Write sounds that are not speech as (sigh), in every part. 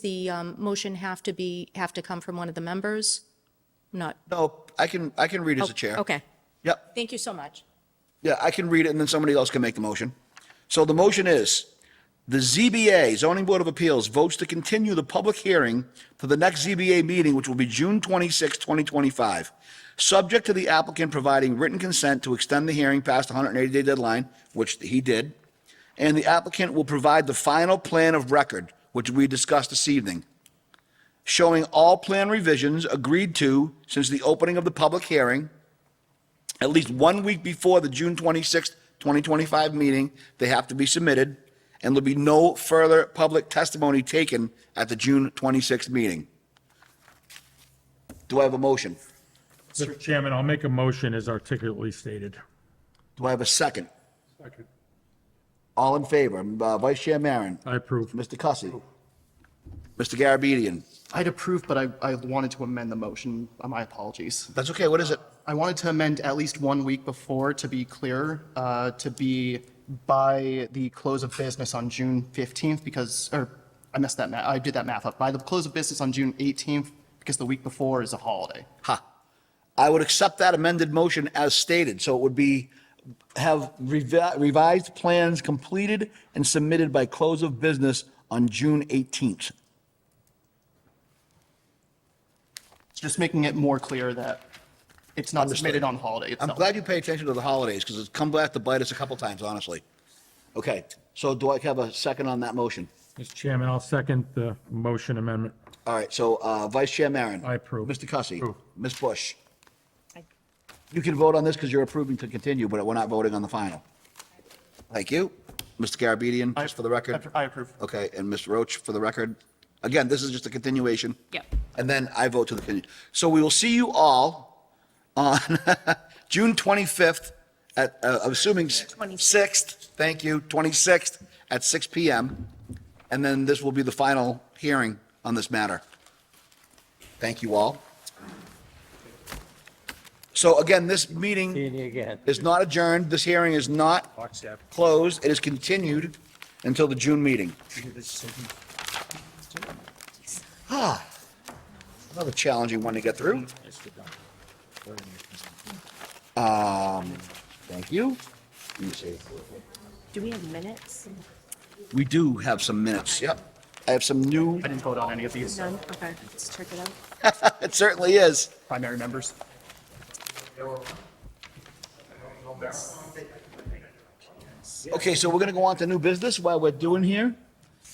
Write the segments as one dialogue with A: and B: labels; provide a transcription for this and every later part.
A: the um, motion have to be, have to come from one of the members? Not,
B: No, I can, I can read as a chair.
A: Oh, okay.
B: Yep,
A: Thank you so much.
B: yeah, I can read it, and then somebody else can make the motion. So the motion is, the ZBA, Zoning Board of Appeals, votes to continue the public hearing to the next ZBA meeting, which will be June 26, 2025, subject to the applicant providing written consent to extend the hearing past the 180-day deadline, which he did, and the applicant will provide the final plan of record, which we discussed this evening, showing all plan revisions agreed to since the opening of the public hearing, at least one week before the June 26th, 2025 meeting, they have to be submitted, and there'll be no further public testimony taken at the June 26th meeting. Do I have a motion?
C: Mr. Chairman, I'll make a motion as articulately stated.
B: Do I have a second? All in favor? Uh, Vice Chair Maron?
C: I approve.
B: Mr. Cussy? Mr. Garabedian?
D: I'd approve, but I, I wanted to amend the motion. Uh, My apologies.
B: That's okay, what is it?
D: I wanted to amend at least one week before to be clear, uh, to be by the close of business on June 15th because, or I messed that math, I did that math up. By the close of business on June 18th because the week before is a holiday.
B: Ha. I would accept that amended motion as stated, so it would be, have revi- revised plans completed and submitted by close of business on June 18th.
D: It's Just making it more clear that it's not submitted on holiday
B: I'm
D: itself.
B: glad you pay attention to the holidays, because it's come back to bite us a couple times, honestly. Okay, so do I have a second on that motion?
C: Mr. Chairman, I'll second the motion amendment.
B: All right, so uh, Vice Chair Maron.
C: I approve.
B: Mr. Cussy.
C: Approve.
B: Ms. Bush. You can vote on this because you're approving to continue, but we're not voting on the final. Thank you. Mr. Garabedian, just for the record.
D: I approve.
B: Okay, and Ms. Roach, for the record, again, this is just a continuation.
A: Yep.
B: And then I vote to the continue. So we will see you all on (laughs) June 25th at, uh, I'm assuming 6th, thank you, 26th at 6 PM. And then this will be the final hearing on this matter. Thank you all. So again, this meeting is not adjourned. This hearing is not closed. It is continued until the June meeting. Ah, another challenging one to get through. Um, Um, thank you. Let me see.
E: Do we have minutes?
B: We do have some minutes, yep. I have some new,
D: I didn't vote on any of these
E: None? Okay, let's check it out.
B: it certainly is.
D: primary members.
B: Okay, so we're gonna go on to new business while we're doing here.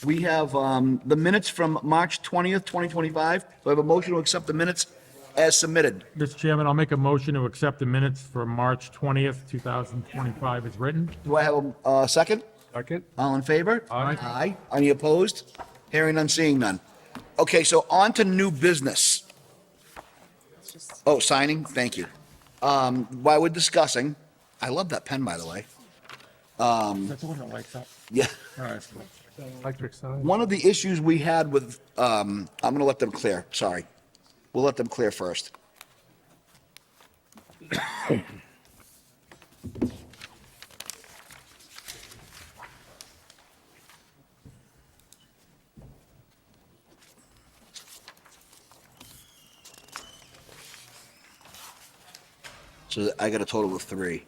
B: We have, um, the minutes from March twentieth, twenty twenty-five. So I have a motion to accept the minutes as submitted.
C: Mr. Chairman, I'll make a motion to accept the minutes for March 20th, 2025 as written.
B: Do I have a, uh second?
C: Second.
B: All in favor?
C: Aye.
B: Aye. Any opposed? Hearing none, seeing none. Okay, so on to new business.
E: It's just,
B: Oh, signing, thank you. Um, while we're discussing, I love that pen, by the way. Um,
C: That's the one that lights up.
B: Yeah.
C: All right. Electric sign.
B: One of the issues we had with, um, I'm gonna let them clear, sorry. We'll let them clear first. So I got a total of three.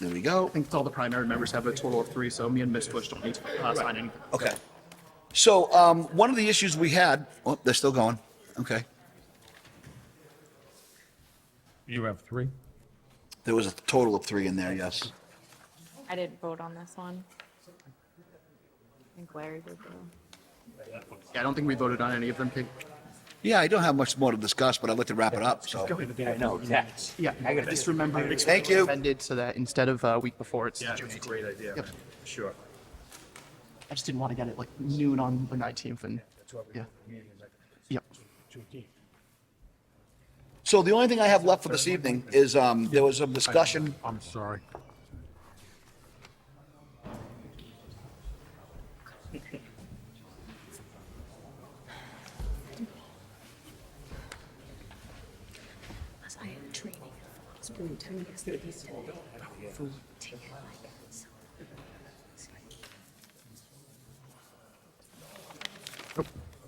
B: There we go.
D: I think all the primary members have a total of three, so me and Ms. Bush don't need to uh, sign anything.
B: Okay. So um, one of the issues we had, oh, they're still going. Okay.
C: You have three?
B: There was a total of three in there, yes.
E: I didn't vote on this one. I think Larry did though.
D: Yeah, I don't think we voted on any of them. Pig.
B: Yeah, I don't have much more to discuss, but I'd like to wrap it up, so.
F: I know, exactly.
D: Yeah, I just remember.
B: Thank you.
D: Amended so that instead of uh, week before, it's June
F: That's a
D: 18th.
F: great idea,
D: Yep.
F: sure.
D: I just didn't want to get it like noon on the 19th and,
F: That's what we-
D: yeah,
F: meeting is like
D: yep.
F: 2:15.
B: So the only thing I have left for this evening is um, there was some discussion.
C: I'm sorry.
E: I am training. It's really tiny. It's the easiest. Food, take it like.